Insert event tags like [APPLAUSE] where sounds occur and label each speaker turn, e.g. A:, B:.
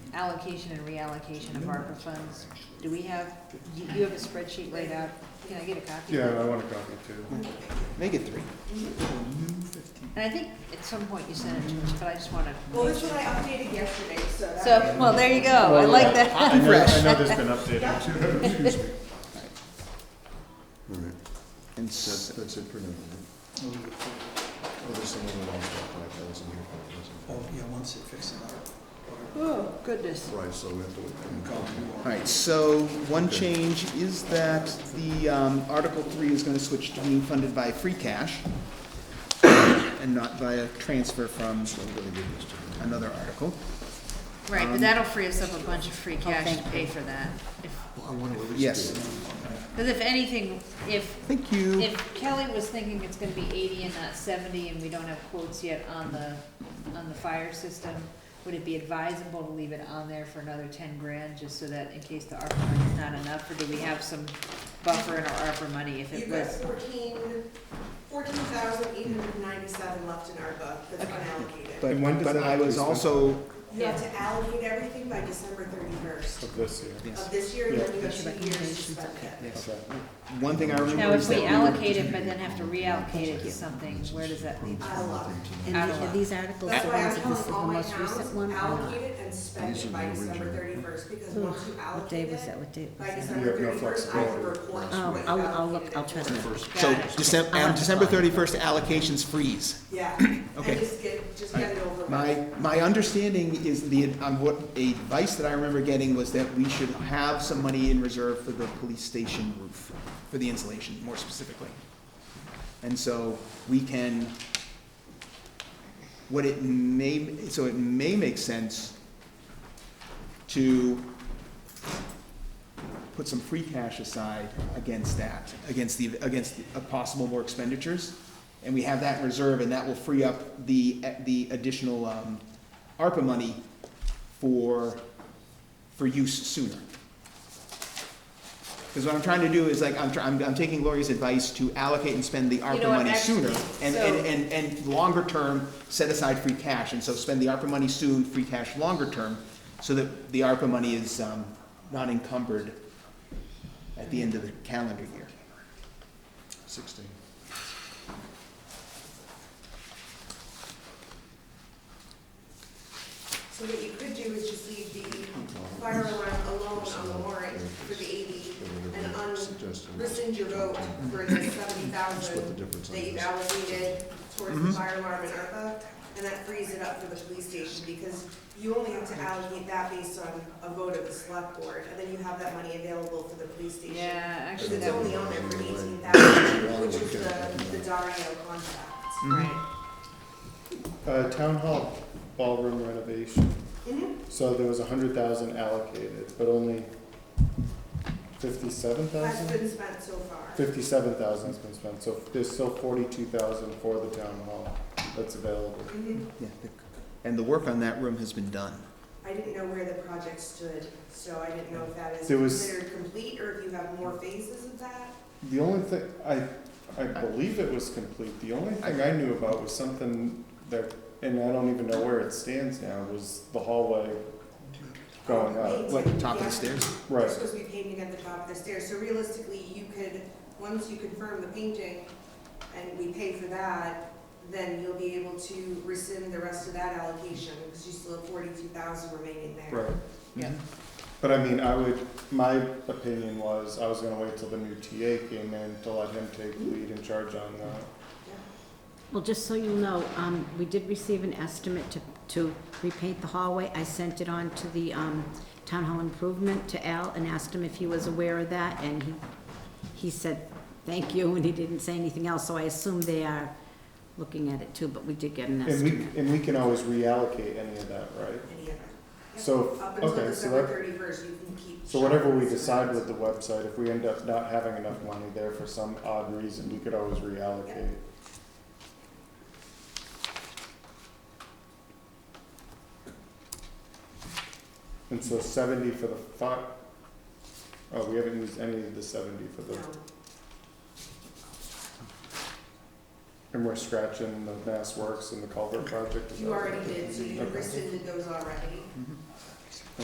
A: allocation and reallocation of ARPA funds. Do we have, do you have a spreadsheet laid out? Can I get a copy?
B: Yeah, I want a copy too.
C: Make it three.
A: And I think at some point you sent it to us, but I just want to.
D: Well, this one I updated yesterday, so that.
A: So, well, there you go. I like
B: I
A: that.
B: know, I know there's been updated.
D: Yeah,
E: Excuse me. All right,
C: And
E: that's,
C: s-
E: that's it for now. right? Oh, there's some other one that that wasn't here.
F: Oh, yeah, once it fixes it up.
A: Oh, goodness.
E: Right, so we have to wait.
C: all right, so one change is that the um, Article Three is going to switch to being funded by free cash and not via transfer from another article.
A: Right, but that'll free us up a bunch of free cash to pay for that.
E: Well, I want to at least.
C: Yes.
E: do it.
A: Because if anything, if,
C: Thank you.
A: if Kelly was thinking it's gonna be eighty and not seventy, and we don't have quotes yet on the, on the fire system, would it be advisable to leave it on there for another ten grand, just so that in case the ARPA money's not enough, or do we have some buffer in our ARPA money if
D: You've
A: it
D: got
A: was?
D: fourteen, fourteen thousand eight hundred ninety-seven left in ARPA that's unallocated.
C: But,
B: And when does
C: but
B: that
C: I was
B: increase then?
C: also,
D: You have to allocate everything by December thirty-first
B: Of this year.
C: yes.
D: of this year, and then you have
A: Yeah.
D: two years to spend it.
C: Yes.
B: Okay.
C: One thing I
A: Now,
C: remember is
A: if
C: that
A: we
C: we
A: allocate it, but then have to reallocate it to something, where does that leave
D: I
A: us?
D: love it.
G: And
A: Out
G: the-
A: of
G: and these articles
D: That's
G: are
D: why
G: ones,
D: I'm
G: if this
D: telling
G: is the
D: all my
G: most recent one uh,
D: towns,
G: or not.
D: allocate it and spend
E: These are
D: it by
E: the
D: December
E: original.
D: thirty-first, because
G: Ugh,
D: once you
G: What day
D: allocate
G: was that,
D: it,
G: what date was
D: by
G: that?
B: You
D: December
B: have no
D: thirty-first, I will
B: flexibility.
D: report what
G: Oh,
D: you've
G: I'll, I'll
D: allocated
G: look, I'll
D: and
G: try to
D: what-
G: look.
C: So
A: Got it.
C: December,
G: I'll
C: on
G: have to
C: December
G: follow up.
C: thirty-first, allocations freeze.
D: Yeah,
C: Okay.
D: and just get, just get it over with.
C: My, my understanding is the, um, what, a advice that I remember getting was that we should have some money in reserve for the police station roof, for the insulation, more specifically. And so we can, what it may, so it may make sense to put some free cash aside against that, against the, against the- uh, possible more expenditures. And we have that in reserve, and that will free up the, the additional, um, ARPA money for, for use sooner. Because what I'm trying to do is like, I'm, try- I'm, I'm taking Lori's advice to allocate and spend the ARPA
A: know what,
C: money sooner.
A: actually,
C: And,
A: so-
C: and, and, and longer term, set aside free cash, and so spend the ARPA money soon, free cash longer term, so that the ARPA money is, um, not encumbered at the end of the calendar year.
E: Sixteen.
D: So what you could do is just leave the fire alarm alone on the warrant for the eighty and un,
E: Suggested.
D: rescind your vote for the seventy
E: Split
D: thousand
E: the difference. on
D: that you've
E: this.
D: allocated towards the fire alarm and ARPA, and that frees it up for the police station, because you only have to allocate that based on a vote of the select board, and then you have that money available for the police station.
A: Yeah, actually,
D: It's
A: that would,
D: only on there for eighteen thousand, which is the, the Dario contract.
A: right.
B: Uh, town hall ballroom renovation.
D: Mhm.
B: So there was a hundred thousand allocated, but only fifty-seven
D: That's
B: thousand?
D: been spent so far.
B: Fifty-seven thousand's been spent, so there's still forty-two thousand for the town hall that's available.
D: Mhm.
C: Yeah, the- And the work on that room has been done.
D: I didn't know where the project stood, so I didn't know if that is
B: There was-
D: considered complete or if you have more phases of that.
B: The only thing, I, I believe it was complete, the only thing I knew about was something that, and I don't even know where it stands now, was the hallway going up.
C: What, top of the stairs?
D: They're
B: Right,
D: supposed to be painting at the top of the stairs, so realistically, you could, once you confirm the painting and we pay for that, then you'll be able to rescind the rest of that allocation because you still have forty-two thousand remaining there.
B: right.
A: Yeah.
C: Mm-hmm.
B: But I mean, I would, my opinion was, I was gonna wait till the new TA came in to let him take lead and charge on that.
G: Well, just so you know, um, we did receive an estimate to, to repaint the hallway. I sent it on to the, um, Town Hall Improvement to Al and asked him if he was aware of that, and he, he said, thank you, [LAUGHS] and he didn't say anything else, so I assume they are looking at it too, but we did get an
B: And
G: estimate.
B: we, and we can always reallocate any of that, right?
D: Any of it. Yep.
B: So,
D: Up until
B: okay, so
D: December
B: that-
D: thirty-first, you can keep.
B: So whatever we
D: shopping.
B: decide with the website, if we end up not having enough money there for some odd reason, we could always reallocate. And so seventy for the fi- oh, we haven't used any of the seventy for the,
D: No.
B: and we're scratching the Mass Works and the culvert project. is
D: You
B: that-
D: already did, so you
B: Okay.
C: Mm-hmm.
D: rescinded those already.